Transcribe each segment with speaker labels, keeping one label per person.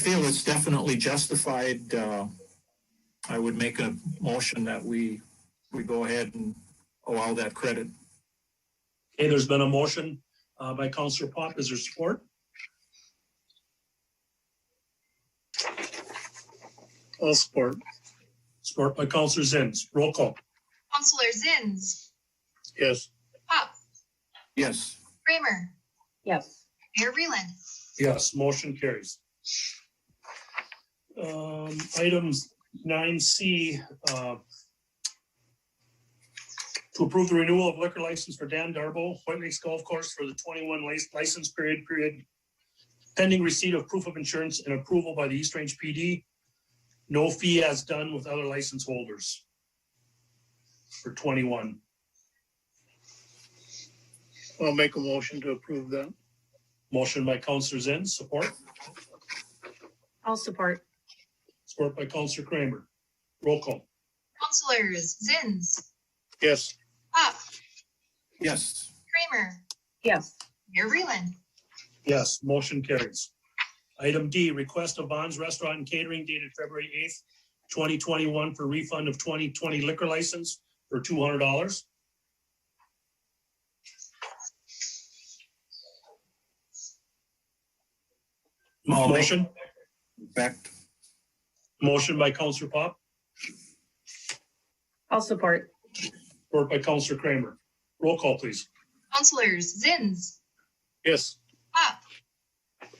Speaker 1: feel it's definitely justified, uh, I would make a motion that we, we go ahead and allow that credit.
Speaker 2: Okay, there's been a motion uh, by Counselor Pop. Is there support? All support. Support by Counselor Zins. Roll call.
Speaker 3: Counselor Zins,
Speaker 2: Yes.
Speaker 3: Pop,
Speaker 1: Yes,
Speaker 3: Kramer,
Speaker 4: Yes,
Speaker 3: Mayor Reland.
Speaker 2: Yes, motion carries. Um, items nine C, uh, to approve the renewal of liquor license for Dan Darbo, White Lakes Golf Course for the twenty-one lic- license period, period pending receipt of proof of insurance and approval by the East Range PD. No fee as done with other license holders for twenty-one.
Speaker 5: I'll make a motion to approve that.
Speaker 2: Motion by Counselor Zins, support,
Speaker 4: I'll support.
Speaker 2: support by Counselor Kramer. Roll call.
Speaker 3: Counselors Zins,
Speaker 5: Yes,
Speaker 3: Pop,
Speaker 1: yes,
Speaker 3: Kramer,
Speaker 4: Yes,
Speaker 3: Mayor Reland.
Speaker 2: Yes, motion carries. Item D, request of Bonds Restaurant and Catering dated February eighth, twenty twenty-one for refund of twenty twenty liquor license for two hundred dollars.
Speaker 1: I'll make-
Speaker 2: Motion,
Speaker 1: back,
Speaker 2: motion by Counselor Pop,
Speaker 4: I'll support.
Speaker 2: or by Counselor Kramer. Roll call, please.
Speaker 3: Counselors Zins,
Speaker 5: yes,
Speaker 3: Pop,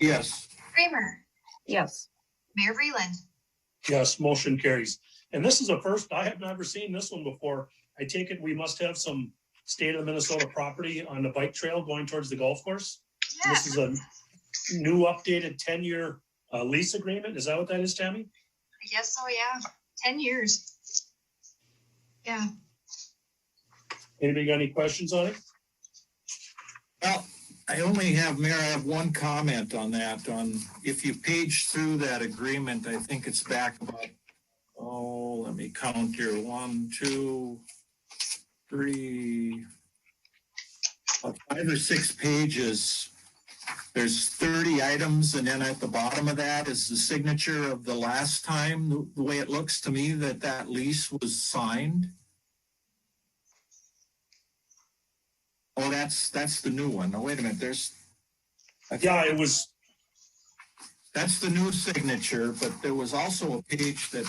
Speaker 1: yes,
Speaker 3: Kramer,
Speaker 4: Yes,
Speaker 3: Mayor Reland.
Speaker 2: Yes, motion carries. And this is a first, I have never seen this one before. I take it we must have some state of Minnesota property on the bike trail going towards the golf course?
Speaker 3: Yeah,
Speaker 2: This is a new updated ten-year uh, lease agreement. Is that what that is, Tammy?
Speaker 3: I guess so, oh yeah. Ten years. Yeah,
Speaker 2: Anybody got any questions on it?
Speaker 1: Well, I only have, Mayor, I have one comment on that, on, if you page through that agreement, I think it's back about, oh, let me count here, one, two, three, about five or six pages. There's thirty items, and then at the bottom of that is the signature of the last time, the- the way it looks to me that that lease was signed. Oh, that's, that's the new one. No, wait a minute, there's. I think-
Speaker 2: Yeah, it was,
Speaker 1: That's the new signature, but there was also a page that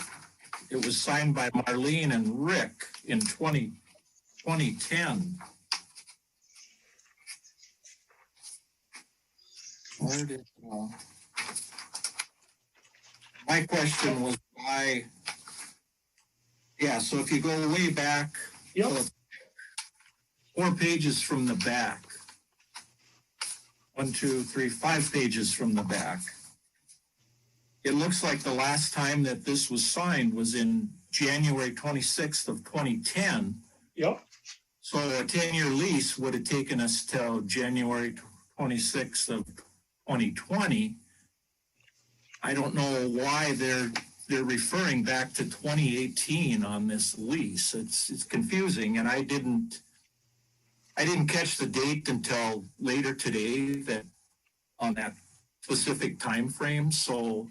Speaker 1: it was signed by Marlene and Rick in 20 2010. Where did, uh, my question was why? Yeah, so if you go way back,
Speaker 2: yep,
Speaker 1: four pages from the back. One, two, three, five pages from the back. It looks like the last time that this was signed was in January twenty-sixth of twenty-ten.
Speaker 2: yep,
Speaker 1: So a ten-year lease would have taken us till January twenty-sixth of twenty twenty. I don't know why they're, they're referring back to twenty eighteen on this lease. It's, it's confusing and I didn't, I didn't catch the date until later today that, on that specific time frame. so.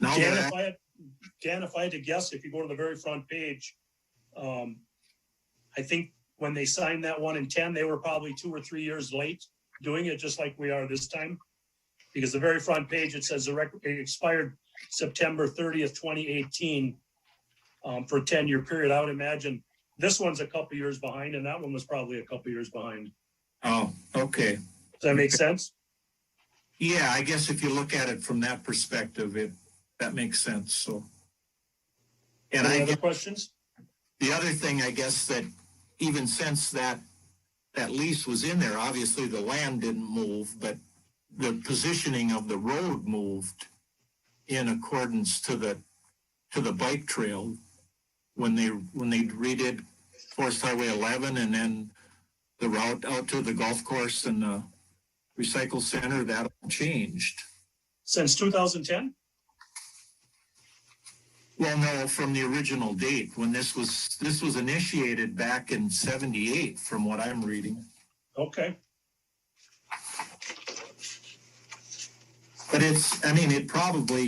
Speaker 1: Now
Speaker 2: Dan,
Speaker 1: that,
Speaker 2: if I had, Dan, if I had to guess, if you go to the very front page, um, I think when they signed that one in ten, they were probably two or three years late doing it, just like we are this time. Because the very front page, it says the record, it expired September thirtieth, twenty eighteen, um, for a ten-year period. I would imagine this one's a couple years behind, and that one was probably a couple years behind.
Speaker 1: oh, okay.
Speaker 2: Does that make sense?
Speaker 1: Yeah, I guess if you look at it from that perspective, it, that makes sense, so. And
Speaker 2: Any
Speaker 1: I,
Speaker 2: other
Speaker 1: guess
Speaker 2: questions?
Speaker 1: the other thing, I guess, that even since that, that lease was in there, obviously the land didn't move, but the positioning of the road moved in accordance to the, to the bike trail when they, when they redid Forest Highway eleven and then the route out to the golf course and the recycle center, that all changed.
Speaker 2: Since two thousand ten?
Speaker 1: Well, no, from the original date, when this was, this was initiated back in seventy-eight, from what I'm reading.
Speaker 2: Okay.
Speaker 1: But it's, I mean, it probably